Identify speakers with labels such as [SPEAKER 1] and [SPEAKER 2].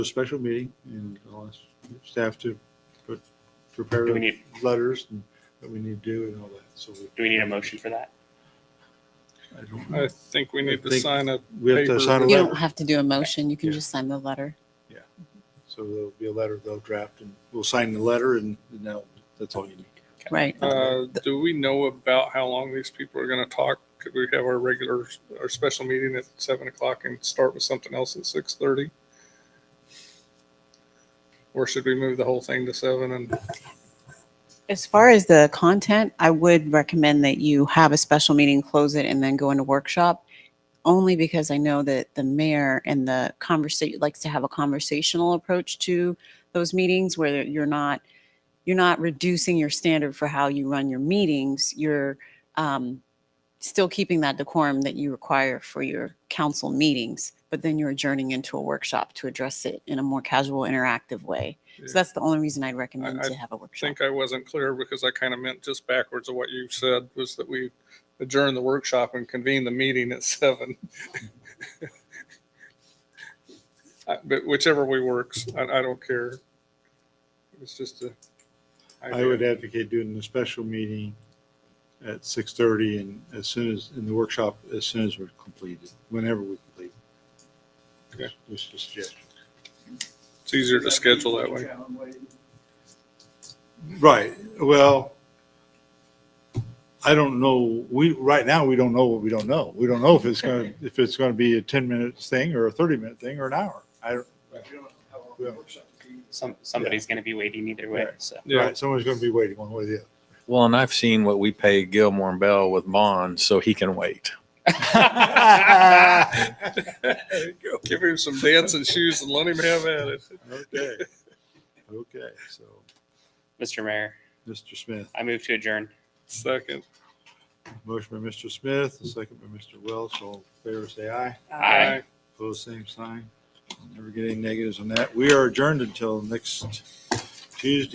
[SPEAKER 1] a special meeting and I'll ask staff to put, prepare
[SPEAKER 2] Do we need-
[SPEAKER 1] letters and that we need to do and all that. So we,
[SPEAKER 2] Do we need a motion for that?
[SPEAKER 1] I don't,
[SPEAKER 3] I think we need to
[SPEAKER 1] think-
[SPEAKER 3] sign up.
[SPEAKER 1] we have to
[SPEAKER 3] Paper.
[SPEAKER 1] sign a
[SPEAKER 4] You don't
[SPEAKER 1] letter.
[SPEAKER 4] have to do a motion. You can
[SPEAKER 1] Yeah.
[SPEAKER 4] just sign the letter.
[SPEAKER 1] So there'll be a letter they'll draft and we'll sign the letter and now that's all you need.
[SPEAKER 4] Right.
[SPEAKER 3] Uh, do we know about how long these people are gonna talk? Could we have our regular, our special meeting at seven o'clock and start with something else at six thirty? Or should we move the whole thing to seven and,
[SPEAKER 4] As far as the content, I would recommend that you have a special meeting, close it, and then go into workshop. Only because I know that the mayor and the conversation likes to have a conversational approach to those meetings where you're not, you're not reducing your standard for how you run your meetings. You're um, still keeping that decorum that you require for your council meetings, but then you're adjourning into a workshop to address it in a more casual, interactive way. So that's the only reason I'd recommend
[SPEAKER 3] I
[SPEAKER 4] to have a workshop.
[SPEAKER 3] think I wasn't clear because I kind of meant just backwards of what you said was that we adjourn the workshop and convene the meeting at seven. Uh, But whichever way works, I, I don't care. It's just a.
[SPEAKER 1] I would advocate doing the special meeting at six thirty and as soon as, in the workshop, as soon as we're completed, whenever we complete.
[SPEAKER 3] Okay.
[SPEAKER 1] Just a suggestion.
[SPEAKER 3] It's easier to schedule that way.
[SPEAKER 1] Right, well, I don't know, we, right now, we don't know what we don't know. We don't know if it's gonna, if it's gonna be a ten minute thing or a thirty minute thing or an hour. I, don't-
[SPEAKER 2] Some, somebody's gonna be waiting either way,
[SPEAKER 1] Right.
[SPEAKER 2] so.
[SPEAKER 3] Yeah,
[SPEAKER 1] right, someone's gonna be waiting one way or the other.
[SPEAKER 5] Well, and I've seen what we pay Gilmore and Bell with bonds, so he can wait.
[SPEAKER 3] give him some dancing shoes and let him have at it.
[SPEAKER 1] Okay, okay, so,
[SPEAKER 2] Mr. Mayor,
[SPEAKER 1] Mr. Smith,
[SPEAKER 2] I move to adjourn.
[SPEAKER 3] Second.
[SPEAKER 1] motion by Mr. Smith, the second by Mr. Welch, all in favor, say aye.
[SPEAKER 2] Aye.
[SPEAKER 1] Opposed, same sign. Never get any negatives on that. We are adjourned until next Tuesday.